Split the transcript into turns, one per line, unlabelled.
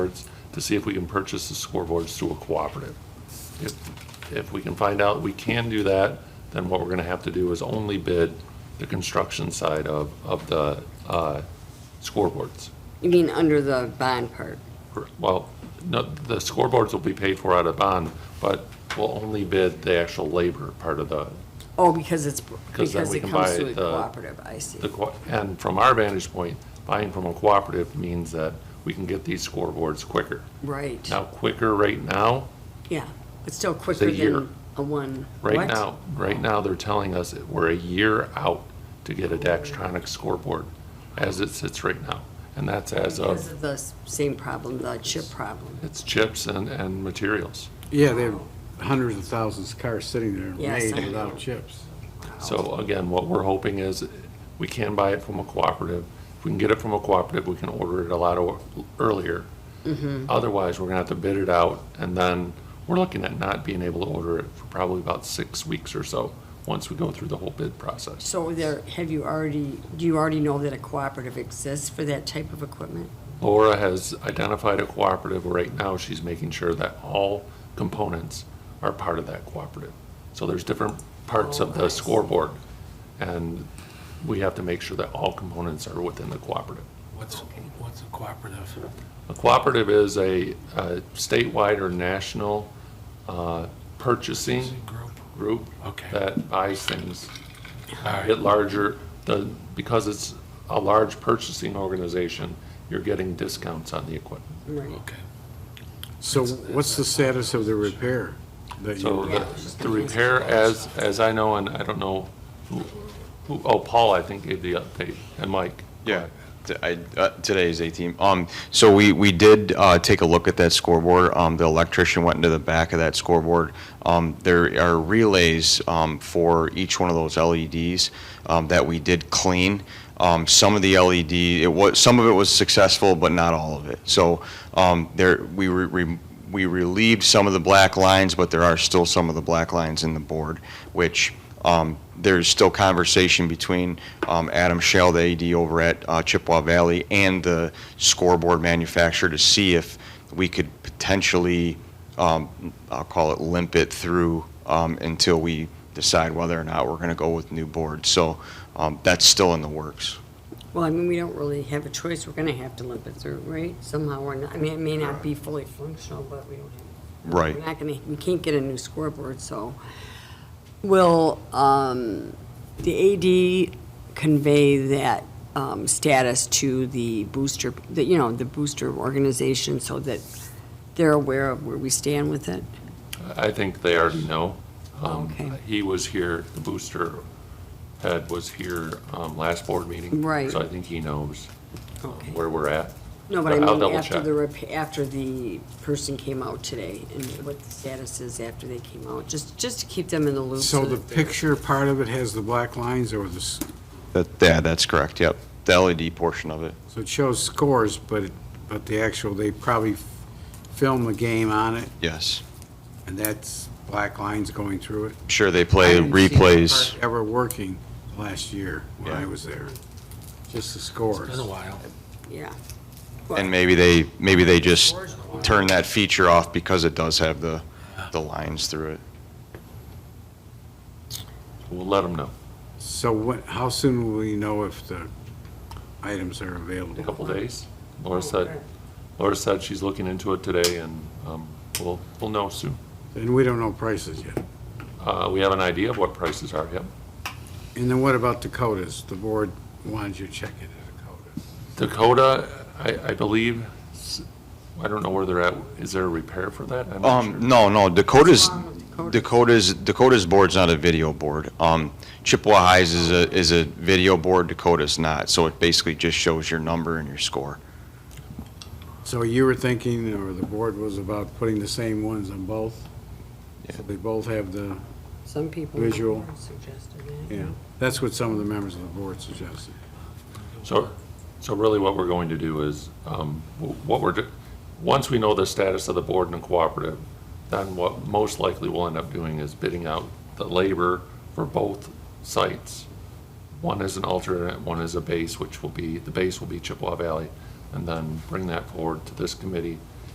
boards to see if we can purchase the scoreboards through a cooperative. If, if we can find out we can do that, then what we're gonna have to do is only bid the construction side of, of the, uh, scoreboards.
You mean under the bond part?
Well, no, the scoreboards will be paid for out of bond, but we'll only bid the actual labor part of the,
Oh, because it's,
then
because
we
it
can
comes
buy
to a
the-
cooperative, I see.
the, co- and from our vantage point, buying from a cooperative means that we can get these scoreboards quicker.
Right,
Now, quicker right now
yeah. It's still quicker
year.
than a one.
Right
what?
now, right now, they're telling us that we're a year out to get a Daxtronic scoreboard as it sits right now. And that's as
Because
of,
of the s- same problem, the chip problem.
it's chips and, and materials.
Yeah, they have hundreds of thousands of cars sitting there
Yes,
made
I know.
without chips.
So again, what we're hoping is we can buy it from a cooperative. If we can get it from a cooperative, we can order it a lot o- earlier. Otherwise, we're gonna have to bid it out and then we're looking at not being able to order it for probably about six weeks or so, once we go through the whole bid process.
So there, have you already, do you already know that a cooperative exists for that type of equipment?
Laura has identified a cooperative right now. She's making sure that all components are part of that cooperative. So there's different parts of
Oh,
the
I see.
scoreboard, and we have to make sure that all components are within the cooperative.
What's, what's a cooperative?
A cooperative is a a statewide or national uh, purchasing
Is it group?
group
Okay.
that buys things
All right,
get larger, the, because it's a large purchasing organization, you're getting discounts on the equipment.
Right.
okay.
So what's the status of the repair? that you-
So the, the repair, as, as I know, and I don't know who, who, oh, Paul, I think gave the update, and Mike.
Yeah, t- I- uh, today is 18. Um, So we, we did uh, take a look at that scoreboard. Um, The electrician went into the back of that scoreboard. Um, There are relays um, for each one of those LEDs um, that we did clean. Um, Some of the LED, it was, some of it was successful, but not all of it. So um, there, we re- re- we relieved some of the black lines, but there are still some of the black lines in the board, which um, there's still conversation between um, Adam Shell, the AD over at uh, Chippewa Valley, and the scoreboard manufacturer to see if we could potentially, um, I'll call it limp it through um, until we decide whether or not we're going to go with new boards. So um, that's still in the works.
Well, I mean, we don't really have a choice. We're gonna have to limp it through, right? Somehow or not. I mean, it may not be fully functional, but we don't have
Right.
We're not gonna, we can't get a new scoreboard, so will, um, the AD convey that, um, status to the booster, the, you know, the booster organization so that they're aware of where we stand with it?
I think they already know. Um,
Oh, Okay.
He was here, the booster head was here, um, last board meeting.
Right.
So I think he knows uh,
Okay.
where we're at.
No, but I
I'll
mean,
double
after
check.
the, rep- after the person came out today and what the status is after they came out, just, just to keep them in the loop.
So the
that they're-
picture part of it has the black lines or the, s-
That, yeah, that's correct, yep. The LED portion of it.
so it shows scores, but, it- but the actual, they probably f- film the game on it
Yes.
and that's black lines going through it.
I'm sure they
I
play
didn't see that
replays.
part Ever working last year when I
Yeah.
was there. Just the
It's been
scores.
a while.
Yeah.
And maybe they, maybe they just turn that feature off because it does have the, the lines through it.
We'll let them know.
So what, how soon will we know if the items are available?
A couple days.
Oh,
Laura said, Laura said she's looking into it today, and um, we'll, we'll know soon.
And we don't know prices yet.
Uh, We have an idea of what prices are, yep.
And then what about Dakotas? The board wanted you to check into Dakotas.
Dakota, I, I believe, s- I don't know where they're at. Is there a repair for that? I'm not sure.
Um, no, no,
What's
Dakota's,
wrong with Dakota?
Dakota's, Dakota's board's not a video board. Um, Chippewa Highs is a, is a video board, Dakota's not. So it basically just shows your number and your score.
So you were thinking, or the board was about putting the same ones on both? So they both have the,
Some people.
Visual.
Suggested that.
yeah, that's what some of the members of the board suggested.
So, so really what we're going to do is, um, wh- what we're, do- once we know the status of the board and the cooperative, then what most likely we'll end up doing is bidding out the labor for both sites. One is an alternate, one is a base, which will be, the base will be Chippewa Valley, and then bring that forward to this committee